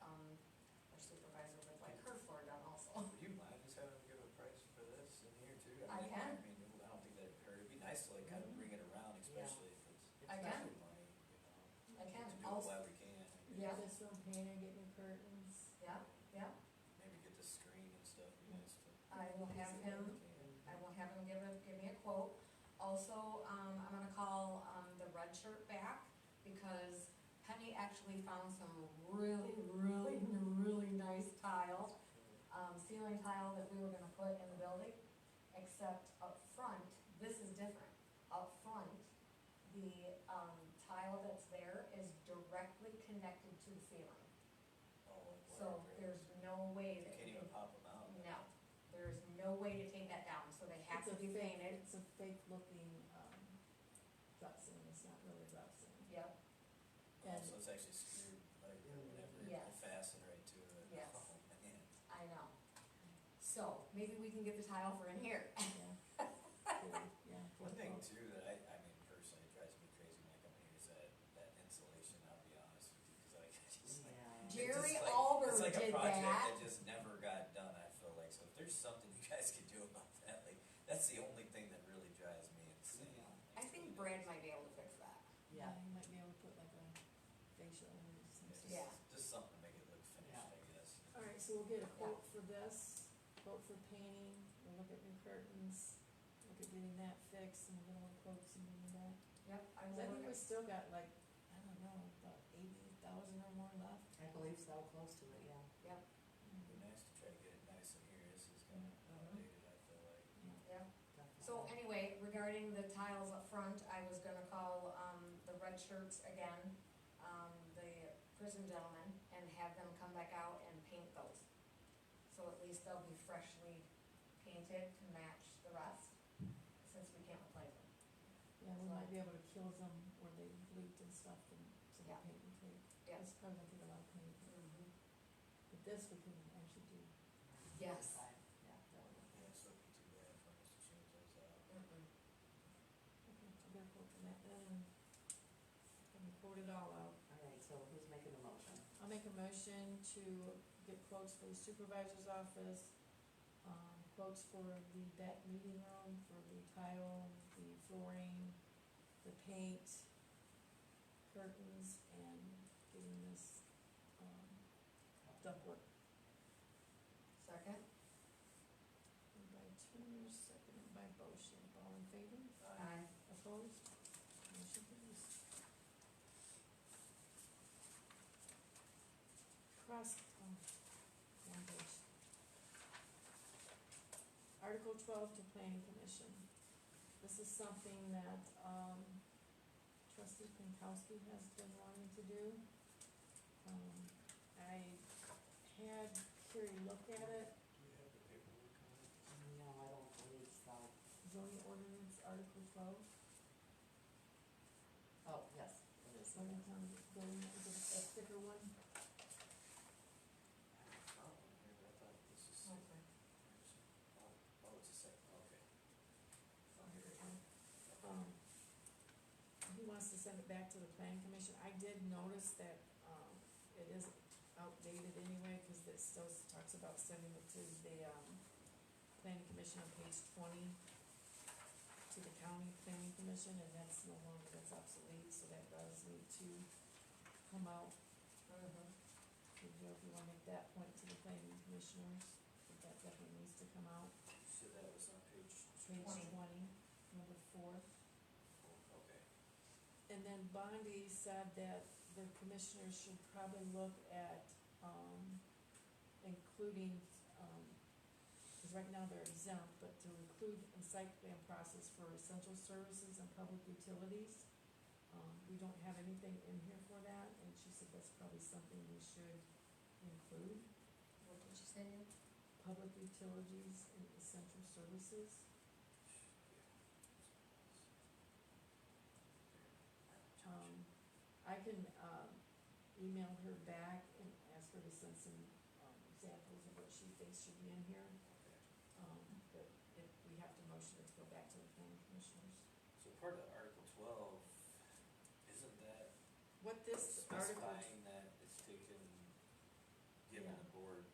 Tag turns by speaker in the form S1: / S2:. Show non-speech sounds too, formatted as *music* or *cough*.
S1: um,
S2: *laughs*
S1: Mm-hmm. I
S2: especially
S1: can.
S2: money, you know.
S1: I can.
S2: To do
S1: I'll-
S2: it while we can.
S1: Yeah.
S3: Get some painter, get new curtains.
S1: Yeah, yeah,
S2: Maybe get the screen and stuff, you know, stuff.
S1: I will have him, I will have him give a, give me a quote. Also, um, I'm gonna call, um, the red shirt back, because Penny actually found some really, really, really nice tile, um, ceiling tile that we were gonna put in the building, except up front, this is different. Up front, the, um, tile that's there is directly connected to the ceiling,
S2: Oh, like
S1: so
S2: wire
S1: there's
S2: grill.
S1: no way
S2: You
S1: that.
S2: can't even pop them out.
S1: No, there is no way to take that down, so they have to
S3: It's a
S1: be
S3: fake-
S1: painted.
S3: It's a fake looking, um, dressing, it's not really dressing.
S1: Yep,
S2: Oh, So it's actually screwed, like, whatever,
S1: Yes.
S2: fastened right to it.
S1: Yes.
S2: Oh, man.
S1: I know. So, maybe we can get the tile for in here. *laughs*
S3: Yeah. Yeah,
S2: *laughs*
S3: yeah.
S2: One thing too that I, I mean personally drives me crazy when I come here is that, that insulation, I'll be honest with you, cause I *laughs* just like. it's just
S1: Jerry
S2: like-
S1: Albert
S2: It's like a
S1: did
S2: project
S1: that.
S2: that just never got done, I feel like, so if there's something *laughs* you guys can do about that, like, that's the only thing that really drives me insane.
S1: I think Brad might be able to fix that.
S3: Yeah, you might be able to put like a facial or
S2: It's just-
S3: something.
S1: Yeah.
S2: Just something to make it look finished, I guess.
S3: Alright, so we'll get a quote for this, quote for painting, we'll look at new curtains, look at getting that fixed, and we're gonna look quotes and all that.
S1: Yep, I
S3: 'Cause I
S1: will
S3: think we
S1: look at-
S3: still got like, I don't know, about eighty thousand or more left.
S4: I believe so, close to it, yeah.
S1: Yep,
S2: It'd be nice to try to get it nice in here, this is kind of outdated, I feel like.
S1: yep.
S4: definitely.
S1: So anyway, regarding the tiles up front, I was gonna call, um, the red shirts again, um, the prison gentlemen, and have them come back out and paint those. So at least they'll be freshly painted to match the rest, since we can't replace them.
S3: Yeah, we might be able to kill them where they leaked and stuff and some
S1: Yeah.
S3: paint and take.
S1: Yeah.
S3: It's probably gonna take a lot of paint,
S1: Mm-hmm,
S3: but this we can actually do.
S1: Yes.
S4: Yeah, that would
S2: Yeah, so it'd be too bad for us to change those out.
S1: Mm-mm.
S3: Okay, I'll get a quote from that then. And quote it all out.
S4: work. All right, so who's making the motion?
S3: I'll make a motion to get quotes for the supervisor's office, um, quotes for the, that meeting room, for the tile, the flooring, the paint, curtains, and getting this, um, ductwork.
S1: Second?
S3: Moved by Turner, seconded by Bochamp, all in favor?
S2: Uh,
S3: Opposed? Motion carries. Cross, oh, one page. Article twelve to planning commission. This is something that, um, trustee Pankowski has been wanting to do. Um, I had Carrie look at it,
S2: Do you have the paperwork on it?
S4: No, I don't believe so.
S3: zoning ordinance, article twelve.
S4: Oh, yes, it is.
S3: Some of them go in with a thicker one.
S2: I have a problem here, but I thought this is. Oh, oh, it's a second, okay. Oh, here it is.
S3: Um, He wants to send it back to the planning commission. I did notice that, um, it is outdated anyway, cause it still talks about sending it to the, um, planning commission on page twenty, to the county planning commission, and that's no longer, that's obsolete, so that does need to come out.
S1: Mm-hmm.
S3: If you if you wanna make that point to the planning commissioners, that that definitely needs to come out.
S2: So that was on page
S3: Page
S1: Twenty.
S3: twenty, number four.
S2: four, okay.
S3: And then Bondi said that the commissioners should probably look at, um, including, um, cause right now they're exempt, but to include in site plan process for essential services and public utilities. Um, we don't have anything in here for that, and she said that's probably something we should include,
S1: What did you say?
S3: public utilities and essential services. Um, I can, um, email her back and ask her to send some, um, examples of what she thinks should be in here.
S2: Okay.
S3: Um, but if we have to motion it to go back to the planning commissioners.
S2: So part of Article twelve, isn't that
S3: What this article,
S2: specifying that